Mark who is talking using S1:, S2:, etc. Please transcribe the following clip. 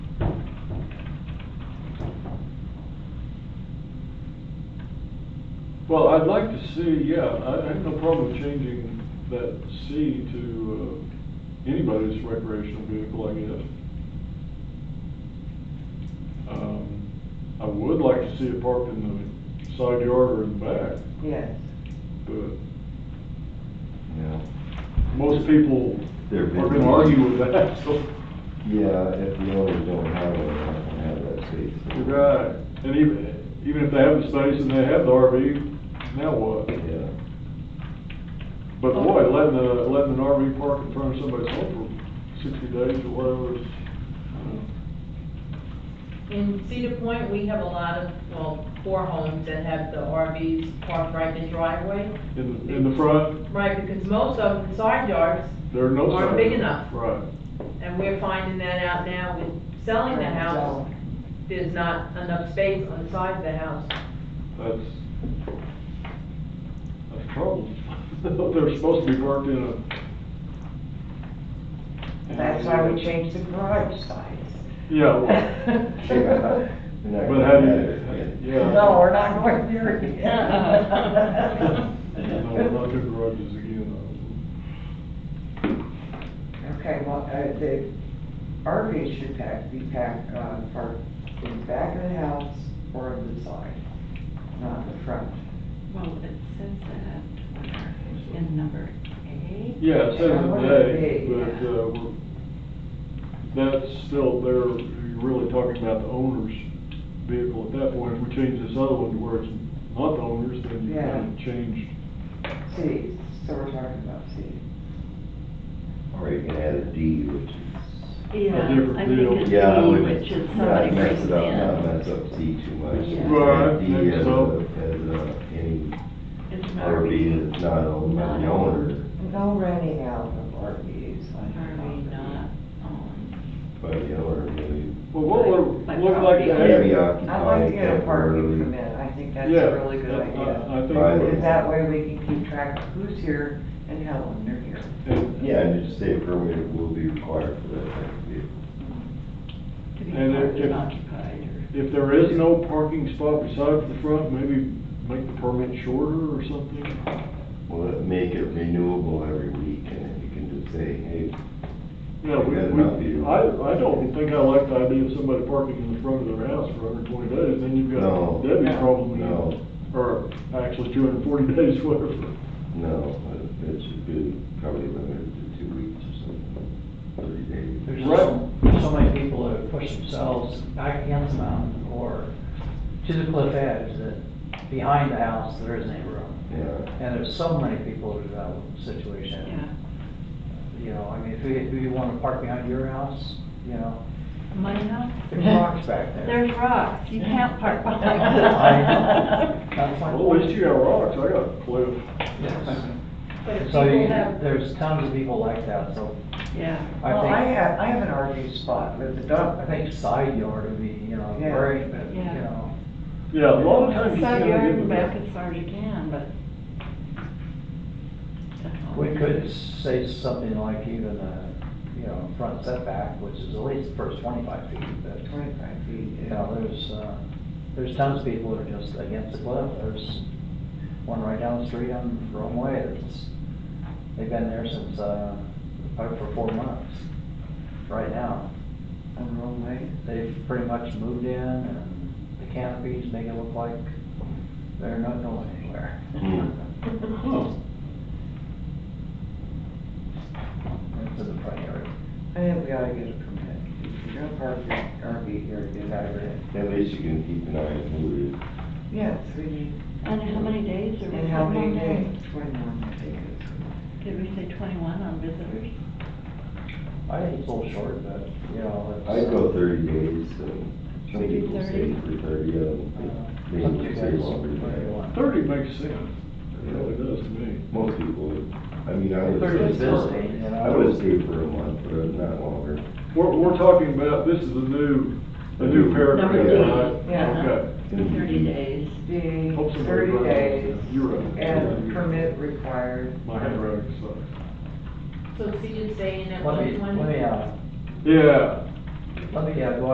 S1: Well, I'd like to see, yeah, I I have no problem changing that C to uh, anybody's recreational vehicle, I guess. Um, I would like to see it parked in the side yard or in the back,
S2: Yes.
S1: but
S3: Yeah,
S1: most people
S3: They're
S1: are
S3: busy.
S1: gonna argue with that, so.
S3: yeah, if the owners don't have it, they're not gonna have that seat. so-
S1: You're Right, and even, even if they have the space and they have the RV, now what?
S3: Yeah,
S1: But boy, letting a, letting an RV park in front of somebody's home for sixty days or whatever is, uh,
S4: In Cedar Point, we have a lot of, well, four homes that have the RVs parked right in the driveway.
S1: you know, in, in the front,
S4: Right, because most of the side yards,
S1: there are no signs.
S4: Aren't big enough.
S1: Right.
S4: and we're finding that out now with selling the house, there's not enough space on the side of the house.
S1: That's, that's trouble. They're supposed to be parked in a.
S2: That's why we changed the garage size.
S1: Yeah, well,
S2: No,
S3: You're not
S1: but
S3: gonna
S1: how
S3: have
S1: do
S3: it.
S1: you, yeah.
S2: we're not going there again.
S1: No, we're not doing garages again. uh,
S2: Okay, well, uh, the RV should pack, be packed, uh, parked in the back of the house or the side, not the front.
S5: Well, it says that in number eight.
S1: Yeah, it says
S2: Yeah,
S1: in
S2: what
S1: day,
S2: is
S1: but,
S2: it?
S1: uh, we're- that's still, they're, you're really talking about the owner's vehicle at that point. If we change this other one to where it's not the owner's, then you
S2: Yeah.
S1: kind of change.
S2: See, so we're talking about see.
S3: Or you can add a D, which is.
S5: Yeah,
S1: different
S5: I
S1: deal.
S5: think it's
S3: Yeah, I
S5: E,
S3: would-
S5: which is
S3: yeah,
S5: somebody
S3: I'd mess
S5: brings
S3: it up, not
S5: in.
S3: mess up C too much.
S5: Yeah.
S3: And
S1: Right,
S3: D
S1: think
S3: as
S1: so.
S3: a- As a, any
S5: It's an
S3: RV that's not owned by the
S5: Not
S3: owner,
S2: No renting out of RVs. I don't know.
S5: RV not owned.
S3: by the owner, maybe.
S1: Well, what would,
S5: Like-
S1: what would like to
S5: like
S1: add?
S3: Maybe
S2: I'd like to
S3: occupied
S2: get a parking
S3: temporarily.
S2: permit, I think that's
S1: Yeah,
S2: a really good
S1: that- I-
S2: idea.
S1: I think
S3: Right.
S1: it
S2: Because
S1: is.
S2: that way we can keep track of who's here and how long they're here.
S1: And-
S3: Yeah, and just say a permit will be required for that type of vehicle.
S5: To be
S1: And if-
S5: parked
S1: if-
S5: and occupied or.
S1: If there is no parking spot besides the front, maybe make the permit shorter or something.
S3: Well, let- make it renewable every week, and then you can just say, hey,
S1: Yeah, we,
S3: That'd not be-
S1: we, I, I don't think I like the idea of somebody parking in the front of their house for under twenty days, then you've
S3: No.
S1: got Debbie's problem. again.
S3: no,
S1: Or actually two hundred and forty days, whatever.
S3: no, it- it should be probably limited to two weeks or something, thirty days.
S6: There's
S1: Right.
S6: so, there's so many people that push themselves back against the mountain or to the cliff edge that behind the house, there isn't any room.
S3: Yeah,
S6: And there's so many people in that situation.
S5: Yeah,
S6: You know, I mean, if you, if you wanna park behind your house, you know,
S5: my house,
S6: there's rocks back there.
S5: there's rocks, you can't park behind the
S6: I- that's my
S1: Well, at
S6: point.
S1: least you got rocks, I got a cliff.
S6: Yes.
S4: But if
S6: So you,
S4: people have,
S6: there's tons of people like that, so
S5: Yeah,
S6: I
S2: Well, I
S6: think,
S2: have, I have an RV spot with the
S6: I
S2: dump.
S6: think side yard would be, you know,
S2: Yeah.
S6: great, but, you
S5: Yeah.
S6: know.
S1: Yeah, a lot of times you
S5: side
S1: gotta
S5: yard
S1: give
S5: and back
S1: them.
S5: as far as you can, but.
S6: We could say something like even a, you know, front setback, which is at least the first twenty-five feet, but,
S2: Twenty-five feet,
S6: you
S2: yeah.
S6: know, there's, uh, there's tons of people that are just against the cliff, there's one right down the street on the wrong way, that's, they've been there since, uh, probably for four months, right now.
S2: I'm wrong way.
S6: They've pretty much moved in, and the canopies make it look like they're not going anywhere.
S3: Hmm.
S1: Huh.
S6: Into the front yard.
S2: I think we ought to get a permit. If you're gonna park your RV here, get out of it.
S3: at least you can keep an eye on who it is.
S2: Yes, we need,
S5: And how many days are we?
S2: and how many
S5: on
S2: days? Twenty-one, I think it is.
S5: that? Did we say twenty-one on visitors?
S6: I think it's a little short, but, you know, it's.
S3: I'd go thirty days, and some people stay
S5: 30?
S3: for thirty, I don't
S6: Uh,
S3: think, they would stay longer than that.
S1: Thirty makes sense, it really does to me.
S3: Most people would, I mean, I would.
S6: Thirty is
S3: stay for-
S6: busy, you know.
S3: I would stay for a month, but not longer.
S1: We're, we're talking about, this is a new, a new paragraph,
S3: Number eight.
S1: right?
S2: Yeah.
S1: Okay.
S5: Thirty days.
S2: Be
S1: Hope somebody
S2: thirty
S1: writes
S2: days
S1: it down. You're right.
S2: and permit required.
S1: My handwriting sucks.
S4: so see you saying at
S6: Let me,
S4: one
S6: let
S4: twenty?
S6: me, uh,
S1: Yeah.
S6: let me, uh, go